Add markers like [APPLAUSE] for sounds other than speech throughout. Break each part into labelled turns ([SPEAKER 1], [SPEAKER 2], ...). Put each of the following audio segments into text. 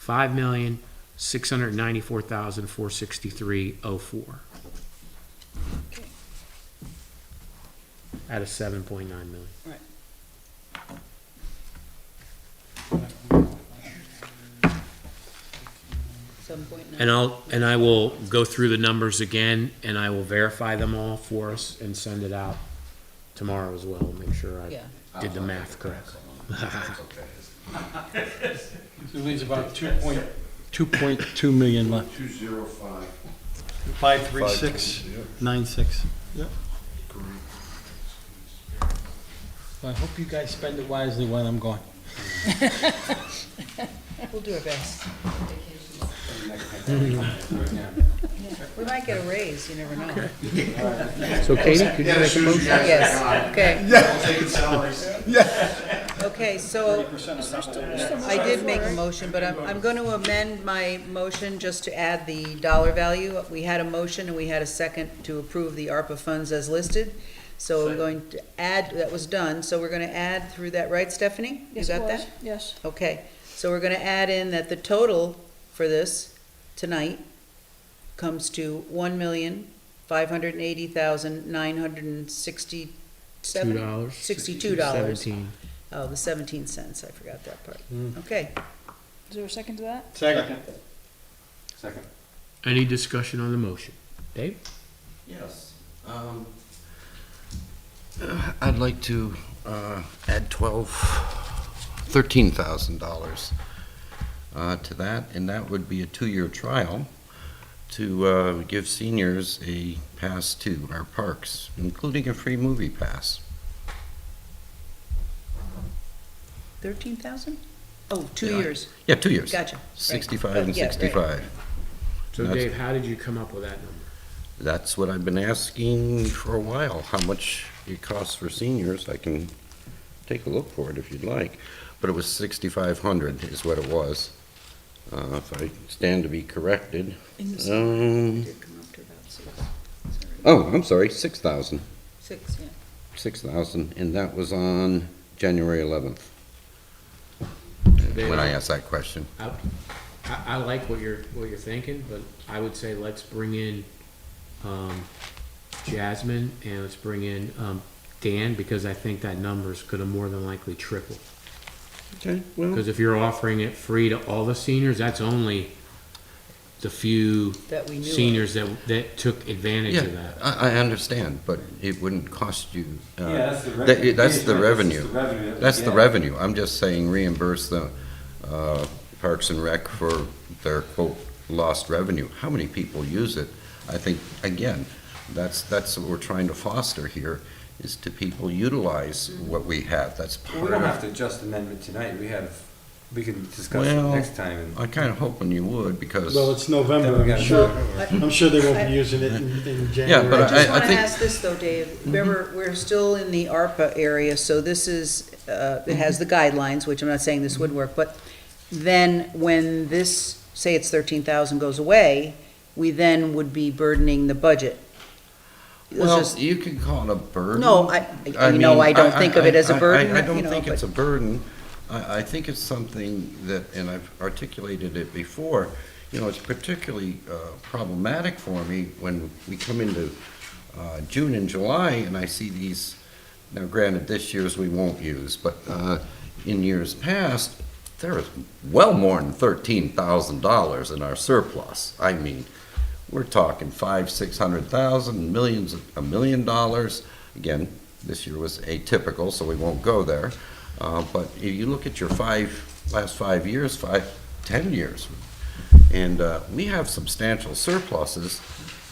[SPEAKER 1] five million, six hundred ninety-four thousand, four sixty-three, oh four. Out of seven point nine million.
[SPEAKER 2] seven point nine.
[SPEAKER 1] And I'll, and I will go through the numbers again, and I will verify them all for us and send it out tomorrow as well, make sure I
[SPEAKER 2] Yeah,
[SPEAKER 1] did the math correct.
[SPEAKER 3] It leaves about two point, two point two million left.
[SPEAKER 4] Two zero five.
[SPEAKER 3] Five, three, six, nine, six. Yep. I hope you guys spend it wisely while I'm gone.
[SPEAKER 2] we'll do our
[SPEAKER 4] [LAUGHS]
[SPEAKER 2] best. We might get a raise, you never know.
[SPEAKER 1] So Katie, could you
[SPEAKER 4] Yeah, as
[SPEAKER 1] make a
[SPEAKER 4] soon as you
[SPEAKER 1] motion?
[SPEAKER 4] guys.
[SPEAKER 2] Yes, okay,
[SPEAKER 4] I'll take it
[SPEAKER 2] [LAUGHS]
[SPEAKER 4] salaries.
[SPEAKER 2] okay, so I did make a motion, but I'm, I'm going to amend my motion just to add the dollar value. We had a motion and we had a second to approve the ARPA funds as listed. So we're going to add, that was done, so we're going to add through that, right, Stephanie? You
[SPEAKER 5] Yes,
[SPEAKER 2] got
[SPEAKER 5] it
[SPEAKER 2] that?
[SPEAKER 5] was. Yes.
[SPEAKER 2] Okay, so we're gonna add in that the total for this tonight comes to one million, five hundred and eighty thousand, nine hundred and
[SPEAKER 1] Two
[SPEAKER 2] sixty-seven?
[SPEAKER 1] dollars?
[SPEAKER 2] Sixty-two dollars.
[SPEAKER 1] Seventeen.
[SPEAKER 2] Oh, the seventeen cents, I forgot that part.
[SPEAKER 3] Mm.
[SPEAKER 2] Okay,
[SPEAKER 5] Is there a second to that?
[SPEAKER 3] Second.
[SPEAKER 4] Second.
[SPEAKER 1] Any discussion on the motion? Dave?
[SPEAKER 4] Yes. um, uh, [CLEARS THROAT] I'd like to uh, add twelve, thirteen thousand dollars uh, to that, and that would be a two-year trial to uh, give seniors a pass to our parks, including a free movie pass.
[SPEAKER 2] thirteen thousand? Oh, two
[SPEAKER 4] Yeah.
[SPEAKER 2] years,
[SPEAKER 4] Yeah, two years.
[SPEAKER 2] gotcha. Right.
[SPEAKER 4] Sixty-five
[SPEAKER 2] Oh,
[SPEAKER 4] and
[SPEAKER 2] yeah, right.
[SPEAKER 4] sixty-five.
[SPEAKER 1] So
[SPEAKER 4] That's-
[SPEAKER 1] Dave, how did you come up with that number?
[SPEAKER 4] That's what I've been asking for a while, how much it costs for seniors. I can take a look for it if you'd like. But it was 6,500 is what it was, Uh, if I stand to be corrected.
[SPEAKER 2] In the summer, it
[SPEAKER 4] Um,
[SPEAKER 2] did come up to about six, sorry.
[SPEAKER 4] Oh, I'm sorry, 6,000,
[SPEAKER 2] six, yeah.
[SPEAKER 4] 6,000, and that was on January 11th, when I asked that question.
[SPEAKER 1] I, I- I like what you're, what you're thinking, but I would say let's bring in, um, Jasmine and let's bring in, um, Dan, because I think that number's gonna more than likely triple.
[SPEAKER 4] Okay, well.
[SPEAKER 1] Cause if you're offering it free to all the seniors, that's only the few
[SPEAKER 2] That we knew of.
[SPEAKER 1] seniors that, that took advantage
[SPEAKER 4] Yeah,
[SPEAKER 1] of that.
[SPEAKER 4] I I understand, but it wouldn't cost you. uh,
[SPEAKER 6] Yeah, that's the
[SPEAKER 4] That-
[SPEAKER 6] revenue.
[SPEAKER 4] That's
[SPEAKER 6] Yeah,
[SPEAKER 4] the
[SPEAKER 6] that's
[SPEAKER 4] revenue.
[SPEAKER 6] the revenue that
[SPEAKER 4] That's
[SPEAKER 6] we
[SPEAKER 4] the
[SPEAKER 6] get.
[SPEAKER 4] revenue. I'm just saying reimburse the uh, Parks and Rec for their quote, "lost revenue." How many people use it? I think, again, that's, that's what we're trying to foster here, is to people utilize what we have. That's
[SPEAKER 6] Well, We
[SPEAKER 4] part
[SPEAKER 6] don't have
[SPEAKER 4] of.
[SPEAKER 6] to adjust amendment tonight, we have, we can discuss it
[SPEAKER 4] Well,
[SPEAKER 6] next time and.
[SPEAKER 4] I kind of hoping you would, because,
[SPEAKER 3] Well, it's
[SPEAKER 6] Then
[SPEAKER 3] November,
[SPEAKER 6] we
[SPEAKER 3] I'm
[SPEAKER 6] gotta
[SPEAKER 3] sure,
[SPEAKER 6] do it.
[SPEAKER 3] I'm sure they won't be using it in, in
[SPEAKER 4] Yeah, but
[SPEAKER 3] January.
[SPEAKER 2] I just
[SPEAKER 4] I
[SPEAKER 2] want to
[SPEAKER 4] think-
[SPEAKER 2] ask this though, Dave, remember, we're still in the ARPA area, so this is, uh, it has the guidelines, which I'm not saying this would work, but then when this, say it's thirteen thousand goes away, we then would be burdening the budget. Let's
[SPEAKER 4] well,
[SPEAKER 2] just-
[SPEAKER 4] you can call it a burden.
[SPEAKER 2] No, I, I- you know,
[SPEAKER 4] mean,
[SPEAKER 2] I don't think of it as a
[SPEAKER 4] I- I-
[SPEAKER 2] burden,
[SPEAKER 4] I
[SPEAKER 2] you
[SPEAKER 4] don't
[SPEAKER 2] know,
[SPEAKER 4] think it's
[SPEAKER 2] but
[SPEAKER 4] a burden. I, I think it's something that, and I've articulated it before, you know, it's particularly uh, problematic for me when we come into uh, June and July and I see these, now granted, this year's we won't use, but uh, in years past, there is well more than thirteen thousand dollars in our surplus. I mean, we're talking five, six hundred thousand, millions, of- a million dollars. Again, this year was atypical, so we won't go there. Uh, But if you look at your five, last five years, five, 10 years, and uh, we have substantial surpluses,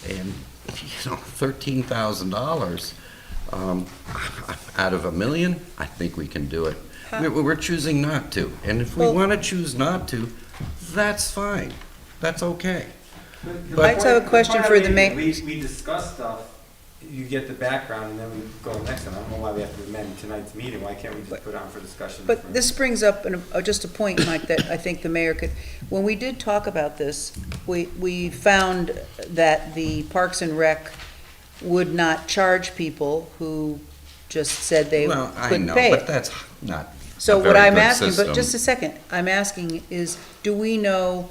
[SPEAKER 4] and, [LAUGHS] you know, $13,000 um, out of a million, I think we can do it. We're we're choosing not to, and if we
[SPEAKER 2] Well-
[SPEAKER 4] want to choose not to, that's fine, that's okay.
[SPEAKER 6] The- the
[SPEAKER 4] But- I
[SPEAKER 2] just have a
[SPEAKER 6] point-
[SPEAKER 2] question
[SPEAKER 6] point
[SPEAKER 2] for
[SPEAKER 6] I'm
[SPEAKER 2] the
[SPEAKER 6] making,
[SPEAKER 2] ma-
[SPEAKER 6] We, we discuss stuff, you get the background and then we go next time. I don't know why we have to amend tonight's meeting, why can't we
[SPEAKER 2] But-
[SPEAKER 6] just put it on for discussion? for-
[SPEAKER 2] But this brings up an- uh, just a point, Mike, that I think the mayor could, when we did talk about this, we, we found that the Parks and Rec would not charge people who just said they
[SPEAKER 4] Well, I
[SPEAKER 2] couldn't
[SPEAKER 4] know,
[SPEAKER 2] pay
[SPEAKER 4] But
[SPEAKER 2] it.
[SPEAKER 4] that's not
[SPEAKER 2] So
[SPEAKER 4] A
[SPEAKER 2] what
[SPEAKER 4] very
[SPEAKER 2] I'm
[SPEAKER 4] good
[SPEAKER 2] asking, but
[SPEAKER 4] system.
[SPEAKER 2] just a second, I'm asking is, do we know